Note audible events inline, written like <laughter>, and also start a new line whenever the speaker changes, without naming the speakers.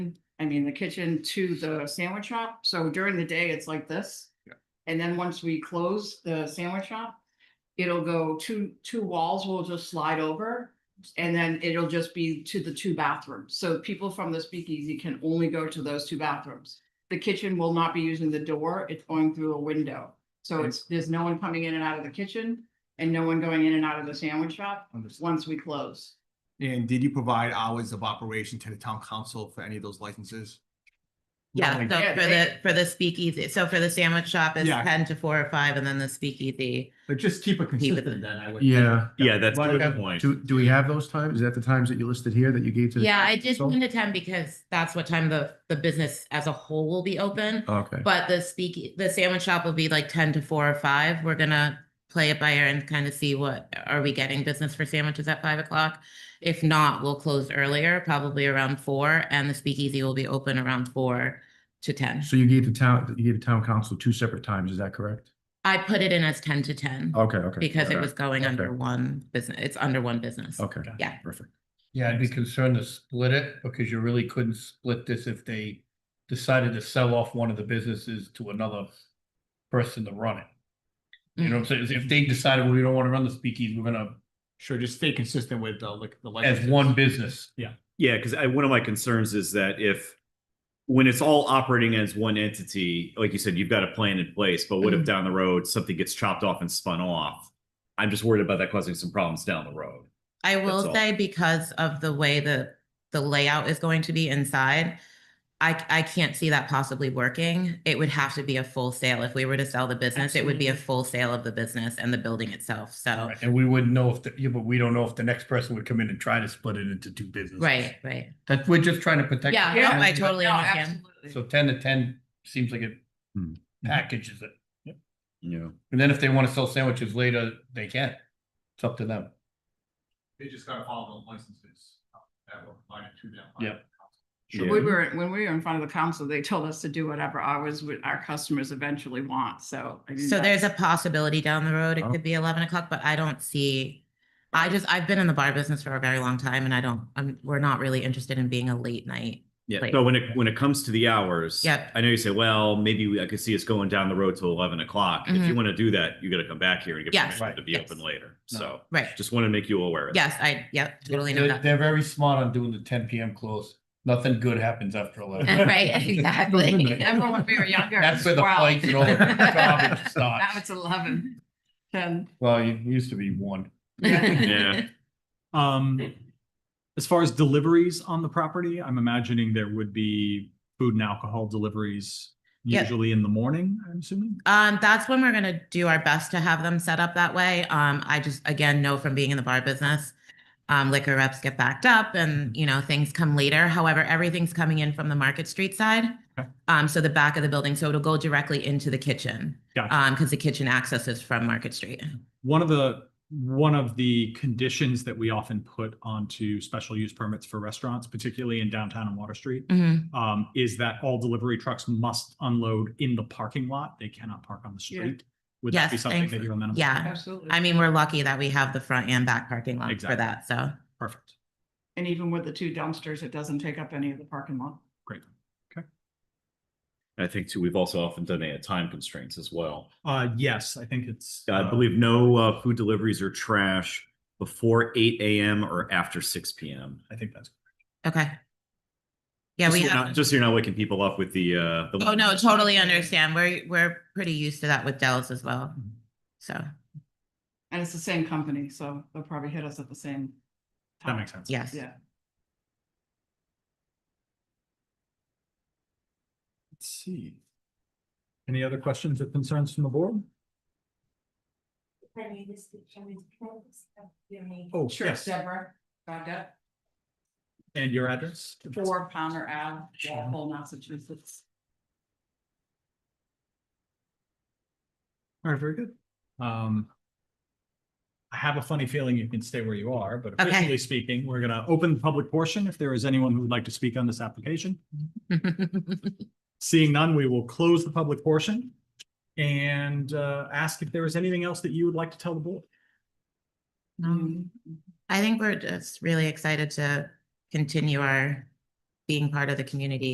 mean, the kitchen to the sandwich shop. So during the day, it's like this.
Yeah.
And then once we close the sandwich shop, it'll go two, two walls will just slide over. And then it'll just be to the two bathrooms. So people from the speakeasy can only go to those two bathrooms. The kitchen will not be using the door. It's going through a window. So
Okay.
it's, there's no one coming in and out of the kitchen and no one going in and out of the sandwich shop
Understood.
once we close.
And did you provide hours of operation to the town council for any of those licenses?
Yeah,
Like-
so
Yeah,
for the, for the speakeasy, so for the sandwich shop is
Yeah.
ten to four or five, and then the speakeasy.
But just keep it consistent then, I would.
Yeah.
Yeah, that's a
Why
good
don't-
point.
Do, do we have those times? Is that the times that you listed here that you gave to? the
Yeah, I
town
did
council?
ten to ten because that's what time the, the business as a whole will be open.
Okay,
But the speak, the sandwich shop will be like ten to four or five. We're gonna play it by ear and kind of see what, are we getting business for sandwiches at five o'clock? If not, we'll close earlier, probably around four, and the speakeasy will be open around four to ten.
so you gave the town, you gave the town council two separate times, is that correct?
I put it in as ten to ten
Okay, okay.
because it
okay,
was going
okay.
under one business, it's under one business.
Okay.
yeah.
Perfect.
Yeah, I'd be concerned to split it because you really couldn't split this if they decided to sell off one of the businesses to another person to run it. You know what I'm saying? If they decided, well, we don't want to run the speakeasy, we're gonna,
Sure, just stay consistent with uh, like the.
as
licenses.
one business.
Yeah, because I, one of my concerns is that if, when it's all operating as one entity, like you said, you've got a plan in place, but what if down the road, something gets chopped off and spun off? I'm just worried about that causing some problems down the road.
I will
all.
say because of the way the, the layout is going to be inside, I, c- I can't see that possibly working. It would have to be a full sale. If we were to sell the business, it would be a full sale of the business and the building itself. So,
And we wouldn't know if, the- yeah, but we don't know if the next person would come in and try to split it into two businesses.
right, right.
That, we're just trying to protect. the
Yeah,
no,
tenant,
I
but-
totally
No,
understand.
absolutely.
So ten to ten seems like it
Hmm.
packages it.
You know,
And then if they want to sell sandwiches later, they can. It's up to them.
They just gotta follow the licenses uh, that were provided to them. by
Yeah.
the council.
So
Yeah.
we were, when we were in front of the council, they told us to do whatever hours would our customers eventually want, so. I mean,
So
that's-
there's a possibility down the road. It could be eleven o'clock, but I don't see. I just, I've been in the bar business for a very long time and I don't, I'm, we're not really interested in being a late night.
Yeah,
Right.
so when it, when it comes to the hours.
Yep.
I know you say, well, maybe we- I could see us going down the road to eleven o'clock. If you
Mhm.
want to do that, you gotta come back here and get
Yes.
permission
Right.
to be
Yes.
open later.
No.
So
Right.
just want to make you aware of that.
Yes, I, yep, totally know
They're,
that.
they're very smart on doing the ten PM close. Nothing good happens after eleven.
<laughs> Right,
<laughs>
exactly.
Remember when we were younger. it
That's
was
where the
12. <laughs>
fights and all the garbage
Now
starts.
it's eleven. Ten.
Well, it used to be one.
<laughs>
Yeah.
Yeah.
Um, as far as deliveries on the property, I'm imagining there would be food and alcohol deliveries
Yeah.
usually in the morning, I'm assuming.
Um, that's when we're gonna do our best to have them set up that way. Um, I just, again, know from being in the bar business, um, liquor reps get backed up and, you know, things come later. However, everything's coming in from the Market Street side.
Okay.
Um, so the back of the building, so it'll go directly into the kitchen.
Gotcha.
Um, because the kitchen access is from Market Street.
One of the, one of the conditions that we often put onto special use permits for restaurants, particularly in downtown and Water Street,
Mhm.
um, is that all delivery trucks must unload in the parking lot. They cannot park on the
Yeah.
street. Would that be
Yes,
something that
thankfully.
you're amenable? to?
Yeah.
Absolutely.
I mean, we're lucky that we have the front and back parking lot for
Exactly.
that, so.
Perfect.
And even with the two dumpsters, it doesn't take up any of the parking lot.
Great.
I think too, we've also often done a time constraints as well.
Uh, yes, I think it's.
I
uh,
Um,
believe no uh, food deliveries or trash before eight AM or after six PM.
I think that's.
Okay. Yeah,
Just
we
so you're
have.
not- Just so you're not waking people up with the, uh. the-
Oh, no, totally understand. We're, we're pretty used to that with Dells as well. So,
And it's the same company, so they'll probably hit us at the same.
That
time.
makes sense.
yes. <laughs>
Yeah.
Let's see. Any other questions or concerns from the board? Oh,
Sure,
yes.
Deborah, Goddard,
And your address?
four Palmer Ave, Walpole, Massachusetts.
All right, very good. Um. I have a funny feeling you can stay where you are, but officially speaking, we're gonna open the public portion if there is anyone who would like to speak on this application. Seeing none, we will close the public portion. And uh, ask if there is anything else that you would like to tell the board.
Um, I think we're just really excited to continue our being part of the community